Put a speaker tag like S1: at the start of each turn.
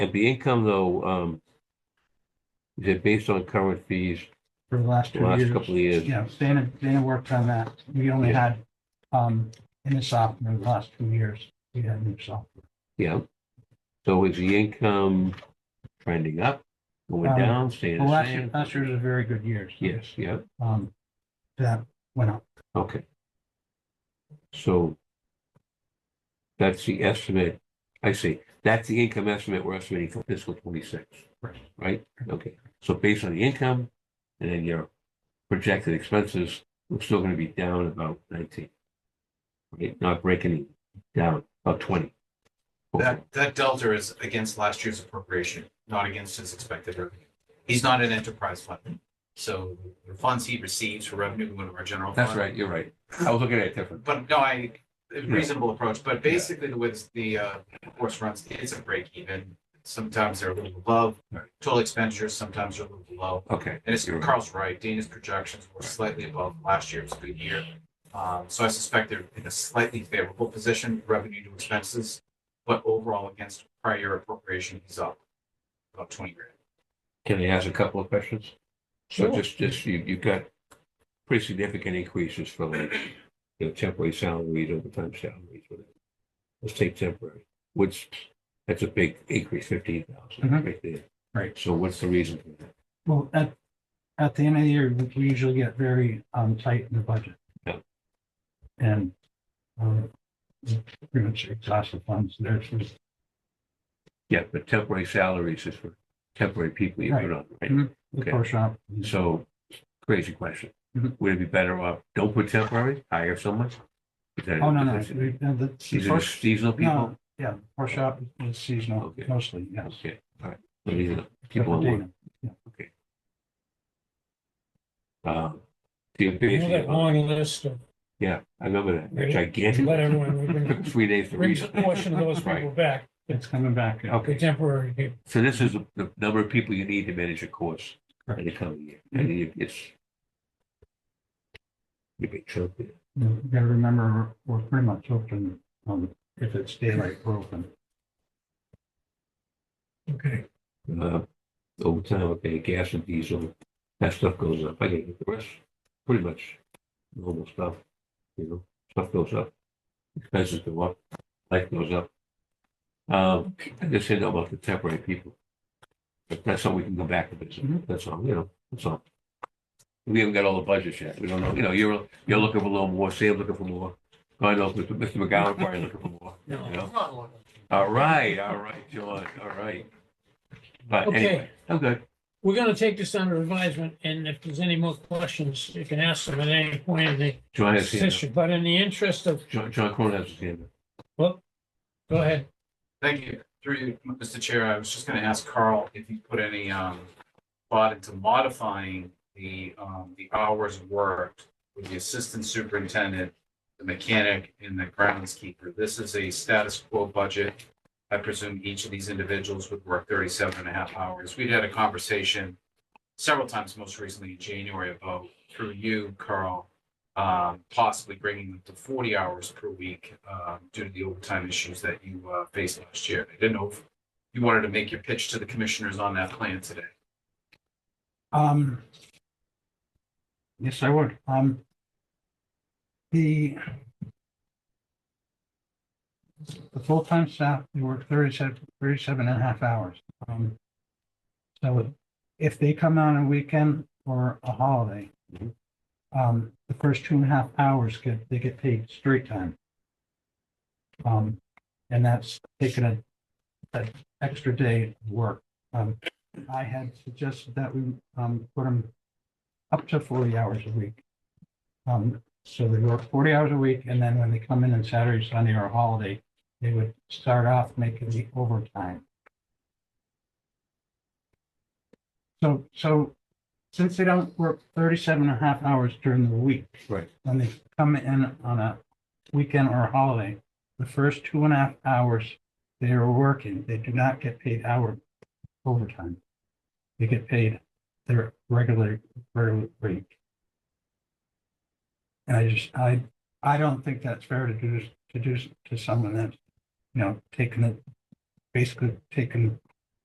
S1: And the income though, um, is it based on current fees?
S2: for the last two
S1: Last
S2: years.
S1: couple of years.
S2: Yeah, Dana, Dana worked on that. We only
S1: Yeah.
S2: had, um, in the software, in the last two years, we had new software.
S1: Yeah. So is the income trending up, going
S2: Um,
S1: down, staying
S2: Well,
S1: the
S2: last year,
S1: same?
S2: last year was a very good year. so,
S1: Yes, yeah,
S2: Um, that went up.
S1: okay. So that's the estimate, I see, that's the income estimate we're estimating for fiscal twenty-six,
S2: Right.
S1: right? Okay, so based on the income and then your projected expenses, we're still gonna be down about nineteen. Right, not breaking it down, about twenty.
S3: That, that delta is against last year's appropriation, not against his expected revenue. He's not an enterprise fund. So the funds he receives for revenue go into our general fund.
S1: That's right, you're right. I was looking at it different.
S3: But no, I, a reasonable approach, but basically the way this- the, uh, course runs, it's a break even. Sometimes they're a little above
S1: Right.
S3: total expenditures, sometimes they're a little below.
S1: Okay.
S3: And it's,
S1: you're right.
S3: Carl's right, Dana's projections were slightly above last year's good year. Um, so I suspect they're in a slightly favorable position, revenue to expenses, but overall against prior year appropriation, he's up about twenty grand.
S1: Can I ask a couple of questions? So
S2: Sure.
S1: just, just, you, you've got pretty significant increases for like, you know, temporary salaries, overtime salaries, whatever. Let's take temporary, which, that's a big increase, fifteen thousand
S2: Mhm.
S1: right there.
S2: Right.
S1: So what's the reason for that?
S2: Well, at, at the end of the year, we- we usually get very, um, tight in the budget.
S1: Yeah.
S2: And, um, we pretty much exhaust the funds there. so-
S1: Yeah, but temporary salaries is for temporary people you put on, right?
S2: the
S1: Okay.
S2: pro shop.
S1: So, crazy question.
S2: Mhm.
S1: Would it be better off, don't put temporary, hire someone? Is that-
S2: Oh, no, no.
S1: is it-
S2: we- uh, the-
S1: These are just seasonal people?
S2: No, yeah, pro shop is seasonal
S1: Okay.
S2: mostly, yes.
S1: Okay, all right. So these are People on work. Um, the
S4: You know
S1: amazing
S4: that
S1: amount-
S4: long list of,
S1: Yeah, I remember that
S4: Really?
S1: gigantic.
S4: let everyone,
S1: Took
S4: we can
S1: Three days to
S4: bring
S1: read.
S4: a
S1: it.
S4: portion of those people
S1: Right.
S4: back,
S2: It's coming back. yeah.
S4: the
S1: Okay,
S4: temporary people.
S1: so this is the- the number of people you need to manage a course in the coming year. And you- it's. You big chunk there.
S2: You gotta remember, we're pretty much open, um, if it's daylight, we're open.
S4: Okay.
S1: Uh, Overtime, okay, gas and diesel, that stuff goes up. I get it. the rest, pretty much normal stuff, you know, stuff goes up. Expenses go up, life goes up. Um, I just said about the temporary people. But that's something we can go back to this,
S2: Mhm.
S1: that's all, you know, that's all. We haven't got all the budgets yet. We don't know, you know, you're, you're looking for a little more, Sam looking for more. I know, Mr. Mr. McGowan probably looking for more, you know? All right, all right, John, all right. But anyway, I'm good.
S4: We're gonna take this under advisement, and if there's any more questions, you can ask them at any point in the
S1: John has his hand
S4: session, but in the interest of,
S1: up. John, John Cronin has his hand
S4: go ahead.
S3: Thank you. Through you, Mr. Chair, I was just gonna ask Carl if he put any, um, thought into modifying the, um, the hours worked with the assistant superintendent, the mechanic, and the groundskeeper. This is a status quo budget. I presume each of these individuals would work 37 and a half hours. We'd had a conversation several times, most recently in January, about, through you, Carl, um, possibly bringing them to 40 hours per week um, due to the overtime issues that you uh, faced last year. I didn't know if you wanted to make your pitch to the commissioners on that plan today.
S2: Um, yes, I would. Um, the the full-time staff, they work 37 37 and a half hours. Um, so if they come on a weekend or a holiday,
S1: Mhm.
S2: um, the first two and a half hours get, they get paid straight time. Um, and that's taking a, an extra day of work. Um, I had suggested that we, um, put them up to forty hours a week. Um, so they work forty hours a week, and then when they come in on Saturday, Sunday, or holiday, they would start off making the overtime. So, so since they don't work 37 and a half hours during the week.
S1: Right.
S2: When they come in on a weekend or a holiday, the first two and a half hours they are working, they do not get paid hour overtime. They get paid their regular, regular rate. And I just, I, I don't think that's fair to do, to do to someone that's, you know, taking it, basically taking